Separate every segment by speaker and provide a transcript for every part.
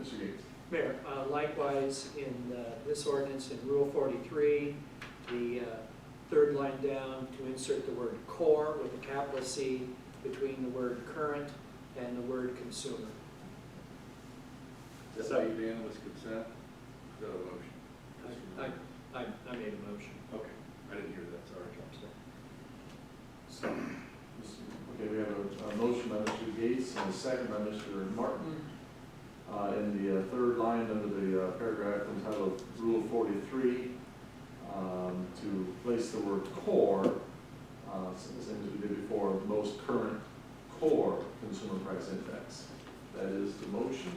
Speaker 1: Mr. Gates.
Speaker 2: Mayor, uh, likewise, in uh, this ordinance in Rule 43, the uh, third line down, to insert the word "core" with a capital C between the word "current" and the word "consumer."
Speaker 3: That's how unanimous consent? Is that a motion?
Speaker 2: I- I- I I made a motion.
Speaker 3: Okay, I didn't hear that, sorry.
Speaker 1: So, Mr. okay, we have a, a motion by Mr. Gates and a second by Mr.
Speaker 2: Mm.
Speaker 1: Martin. Uh, in the uh, third line under the uh, paragraph entitled Rule forty-three, um, to place the word core, uh, s- same as we did before, most current core consumer price index. That is the motion,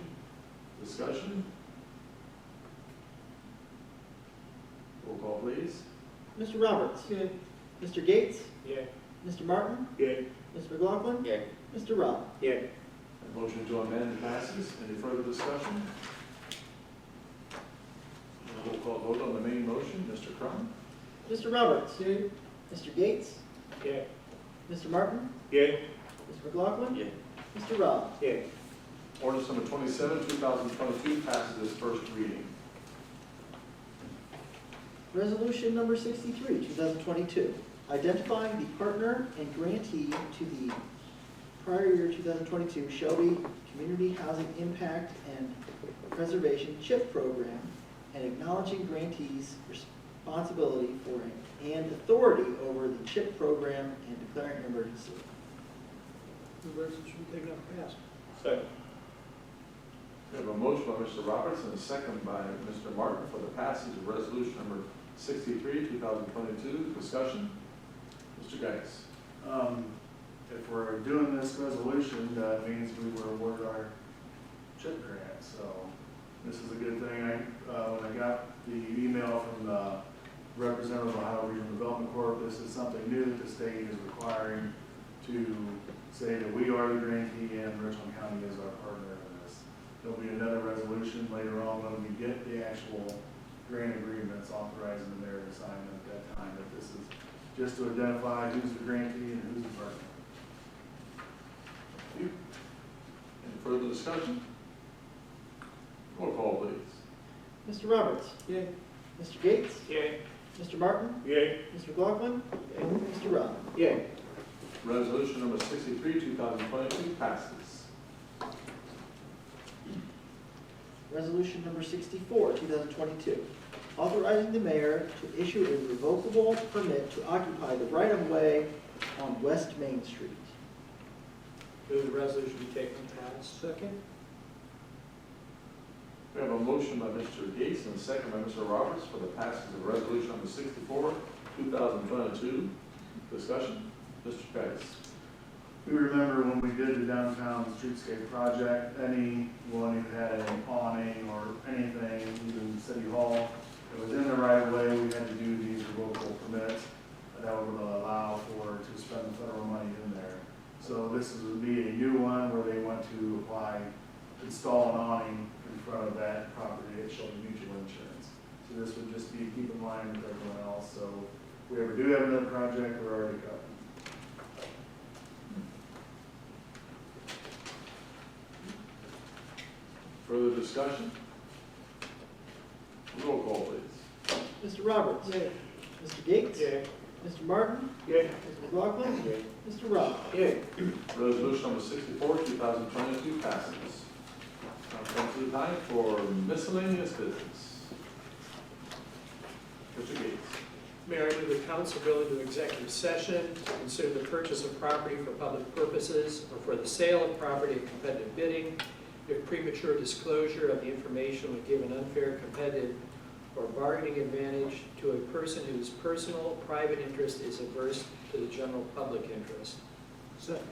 Speaker 1: discussion. Roll call, please.
Speaker 4: Mr. Roberts. Mr. Gates.
Speaker 2: Yeah.
Speaker 4: Mr. Martin.
Speaker 2: Yeah.
Speaker 4: Mr. McLaughlin.
Speaker 5: Yay.
Speaker 4: Mr. Rob.
Speaker 2: Yeah.
Speaker 1: That Motion to amend passes. Any further discussion? Roll call vote on the main motion. Mr. Crum?
Speaker 4: Mr. Roberts. Mr. Gates.
Speaker 2: Yeah.
Speaker 4: Mr. Martin.
Speaker 2: Yeah.
Speaker 4: Mr. McLaughlin.
Speaker 5: Yay.
Speaker 4: Mr. Rob.
Speaker 2: Yeah.
Speaker 1: Ordinance number twenty-seven, two thousand twenty-two passes its first reading.
Speaker 4: Resolution number sixty-three, two thousand twenty-two, identifying the partner and grantee to the prior year two thousand twenty-two Shelby Community Housing Impact and Preservation CHIP Program and acknowledging grantees' responsibility for and authority over the CHIP program and declaring an emergency.
Speaker 2: The resolution taken up and passed.
Speaker 1: We have a motion by Mr. Roberts and a second by Mr. Martin for the passage of resolution number sixty-three, two thousand twenty-two. Discussion? Mr. Geis.
Speaker 6: Um, If we're doing this resolution, that means we were awarded our chip grant, so this is a good thing. I, uh, when I got the email from the representative of Ohio Regional Development Corp., this is something new that the state is requiring to say that we are the grantee and Richland County is our partner in this. There'll be another resolution later on when we get the actual grant agreements authorizing the mayor to sign them at that time, but this is just to identify who's the grantee and who's the partner.
Speaker 1: Thank you. Any further discussion? Roll call, please.
Speaker 4: Mr. Roberts?
Speaker 2: Yay.
Speaker 4: Mr. Gates?
Speaker 2: Yeah.
Speaker 4: Mr. Martin?
Speaker 2: Yeah.
Speaker 4: Mr. McLaughlin? Mr. Rob?
Speaker 2: Yeah.
Speaker 1: Resolution number sixty-three, two thousand twenty-two passes.
Speaker 4: Resolution number sixty-four, two thousand twenty-two, authorizing the mayor to issue a revocable permit to occupy the right-of-way on West Main Street.
Speaker 2: Move the resolution be taken up and passed. Second.
Speaker 1: We have a motion by Mr. Gates and a second by Mr. Roberts for the passage of resolution number sixty-four, two thousand twenty-two. Discussion, Mr. Geis.
Speaker 6: We remember when we did the downtown streetscape project, anyone who had an awning or anything, even City Hall, that was in the right of way, we had to do these revocable permits that would allow for, to spend the federal money in there. So this is- would be a new one where they want to apply, install an awning in front of that property at Shelby Mutual Insurance. So this would just be keep in mind with everyone else, so if we ever do have another project, we're already covered.
Speaker 1: Further discussion? Roll call, please.
Speaker 4: Mr. Roberts?
Speaker 2: Yeah.
Speaker 4: Mr. Gates?
Speaker 2: Yeah.
Speaker 4: Mr. Martin?
Speaker 2: Yeah.
Speaker 4: Mr. McLaughlin? Mr. Rob?
Speaker 2: Yeah.
Speaker 1: Resolution number sixty-four, two thousand twenty-two passes. Now come to the time for miscellaneous business. Mr. Gates.
Speaker 2: Mayor, I move the council go into executive session to consider the purchase of property for public purposes or for the sale of property at competitive bidding if premature disclosure of the information would give an unfair competitive or bargaining advantage to a person whose personal, private interest is adverse to the general public interest.
Speaker 6: Second.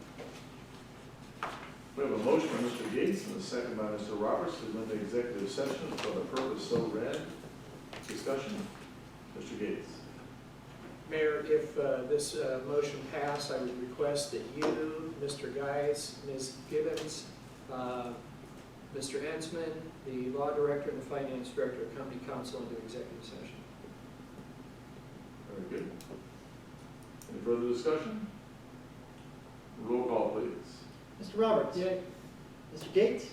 Speaker 1: We have a motion by Mr. Gates and a second by Mr. Roberts to amend the executive session for the purpose so read. Discussion, Mr. Gates.
Speaker 2: Mayor, if uh, this uh, motion passed, I would request that you, Mr. Geis, Ms. Gibbons, uh, Mr. Ensman, the law director, and the finance director accompany council into executive session.
Speaker 1: Very good. Any further discussion? Roll call, please.
Speaker 4: Mr. Roberts? Mr. Gates?